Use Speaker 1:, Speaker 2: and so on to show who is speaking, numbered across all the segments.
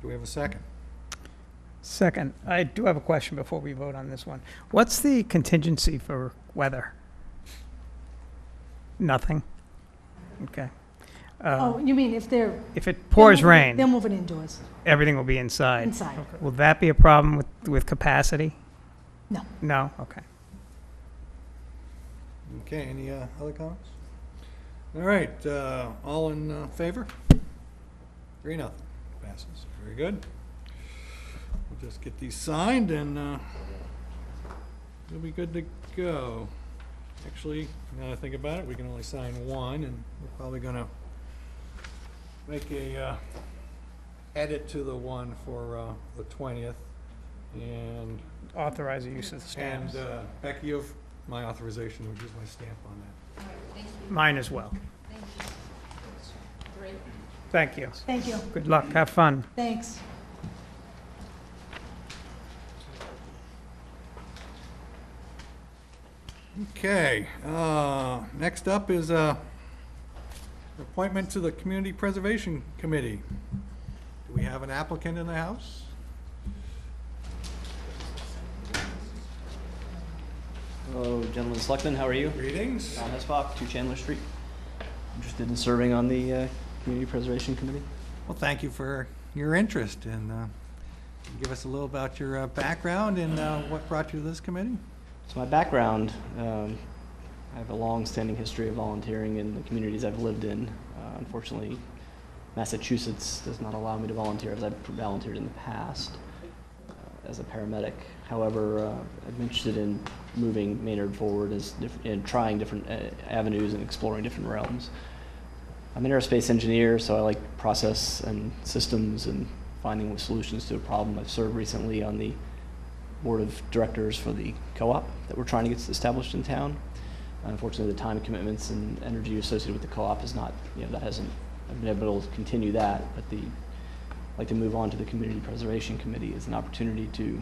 Speaker 1: Do we have a second?
Speaker 2: Second, I do have a question before we vote on this one. What's the contingency for weather? Nothing? Okay. Uh,
Speaker 3: Oh, you mean if they're.
Speaker 2: If it pours
Speaker 3: they're moving- They're
Speaker 2: rain,
Speaker 3: moving indoors,
Speaker 2: everything will be inside.
Speaker 3: inside.
Speaker 2: Will that be a problem with, with capacity?
Speaker 3: No.
Speaker 2: No? Okay.
Speaker 1: Okay, any uh, other comments? All right, uh, all in uh, favor? Three, nothing. Passes. Very good. We'll just get these signed and uh, we'll be good to go. Actually, now that I think about it, we can only sign one and we're probably gonna make a uh, edit to the one for uh, the 20th. And
Speaker 2: Authorize the use of the stamps.
Speaker 1: and uh, Becky, you have my authorization, which is my stamp on that.
Speaker 2: Mine as well. Thank you.
Speaker 3: Thank you,
Speaker 2: Good luck. Have fun.
Speaker 3: thanks.
Speaker 1: Okay, uh, next up is uh, appointment to the Community Preservation Committee. Do we have an applicant in the house?
Speaker 4: Hello, gentlemen, selectmen, how are you?
Speaker 1: Greetings.
Speaker 4: Tom Hesbach, 2 Chandler Street. Interested in serving on the uh, Community Preservation Committee?
Speaker 1: Well, thank you for your interest and uh, give us a little about your uh, background and uh, what brought you to this committee.
Speaker 4: So my background, um, I have a long-standing history of volunteering in the communities I've lived in. Uh, Unfortunately, Massachusetts does not allow me to volunteer as I've volunteered in the past uh, as a paramedic. However, uh, I'm interested in moving Maynard forward as diff- and trying different uh, avenues and exploring different realms. I'm an aerospace engineer, so I like process and systems and finding solutions to a problem. I've served recently on the board of directors for the co-op that we're trying to get established in town. Unfortunately, the time commitments and energy associated with the co-op is not, you know, that hasn't, I've been able to continue that, but the, I'd like to move on to the Community Preservation Committee as an opportunity to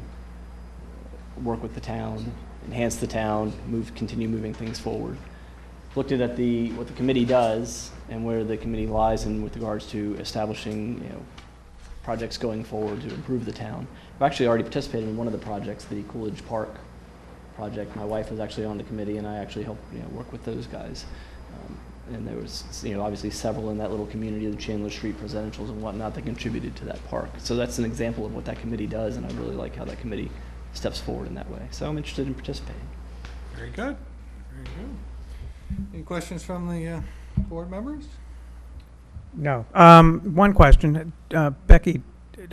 Speaker 4: work with the town, enhance the town, move, continue moving things forward. Looked at the, what the committee does and where the committee lies in with regards to establishing, you know, projects going forward to improve the town. I've actually already participated in one of the projects, the Coolidge Park project. My wife was actually on the committee, and I actually helped you know, work with those guys. Um, and there was, you know, obviously several in that little community, the Chandler Street Presidentials and whatnot, that contributed to that park. So that's an example of what that committee does, and I really like how that committee steps forward in that way. So I'm interested in participating.
Speaker 1: Very good, very good. Any questions from the uh, board members?
Speaker 2: No. Um, one question. Uh, Becky,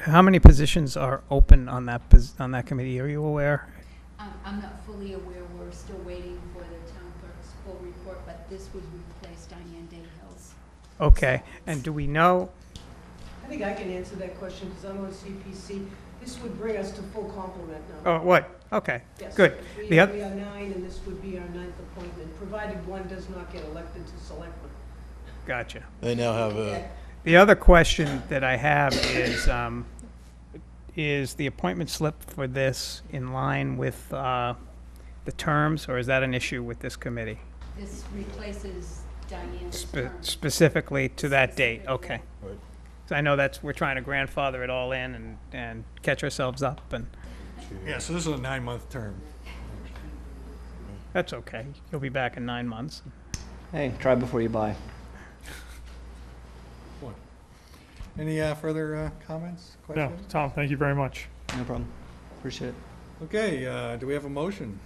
Speaker 2: how many positions are open on that, pos- on that committee? Are you aware?
Speaker 5: Um, I'm not fully aware, we're still waiting for the town clerk's full report, but this would replace Diane Day Hill's.
Speaker 2: Okay. And do we know?
Speaker 6: I think I can answer that question because I'm on CPC. This would bring us to full complement now.
Speaker 2: Oh, what? Okay.
Speaker 6: Yes.
Speaker 2: good.
Speaker 6: We
Speaker 2: The
Speaker 6: we
Speaker 2: oth-
Speaker 6: are nine, and this would be our ninth appointment, provided one does not get elected to selectman.
Speaker 2: Gotcha.
Speaker 7: They now have a,
Speaker 2: The other question that I have is, um, is the appointment slip for this in line with, uh, the terms, or is that an issue with this committee?
Speaker 5: This replaces Diane's
Speaker 2: Spe-
Speaker 5: term.
Speaker 2: Specifically to that date? Okay.
Speaker 7: Right.
Speaker 2: So I know that's, we're trying to grandfather it all in and, and catch ourselves up, and
Speaker 1: Yeah, so this is a nine-month term.
Speaker 2: that's okay. You'll be back in nine months.
Speaker 4: Hey, try before you buy.
Speaker 1: Any uh, further uh, comments,
Speaker 8: No,
Speaker 1: questions?
Speaker 8: Tom, thank you very much.
Speaker 4: No problem. Appreciate it.
Speaker 1: Okay, uh, do we have a motion?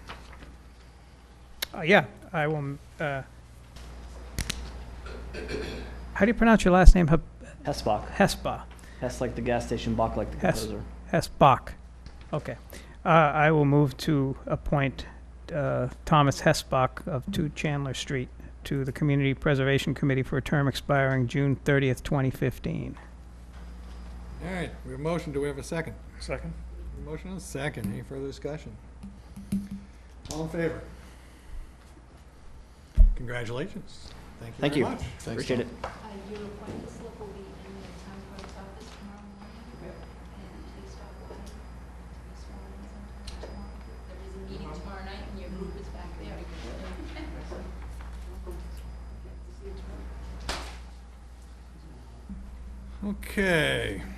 Speaker 2: Uh, yeah, I will, uh, how do you pronounce your last name? Hep-
Speaker 4: Hesbach.
Speaker 2: Hesba?
Speaker 4: Hess like the gas station, Bach like the
Speaker 2: Hess.
Speaker 4: composer.
Speaker 2: Hess Bach. Okay. Uh, I will move to appoint uh, Thomas Hessbach of 2 Chandler Street to the Community Preservation Committee for a term expiring June 30th, 2015.
Speaker 1: All right, we have a motion, do we have a second?
Speaker 8: Second?
Speaker 1: Motion and a second, any further discussion? All in favor? Congratulations. Thank
Speaker 4: Thank
Speaker 1: you
Speaker 4: you.
Speaker 1: very much.
Speaker 7: thanks,
Speaker 4: Appreciate it.
Speaker 5: Uh, your appointment slip will be in the town clerk's office tomorrow morning. And please stop by. to be sworn in sometime tomorrow. There is a meeting tomorrow night and your group is back there.
Speaker 1: Okay,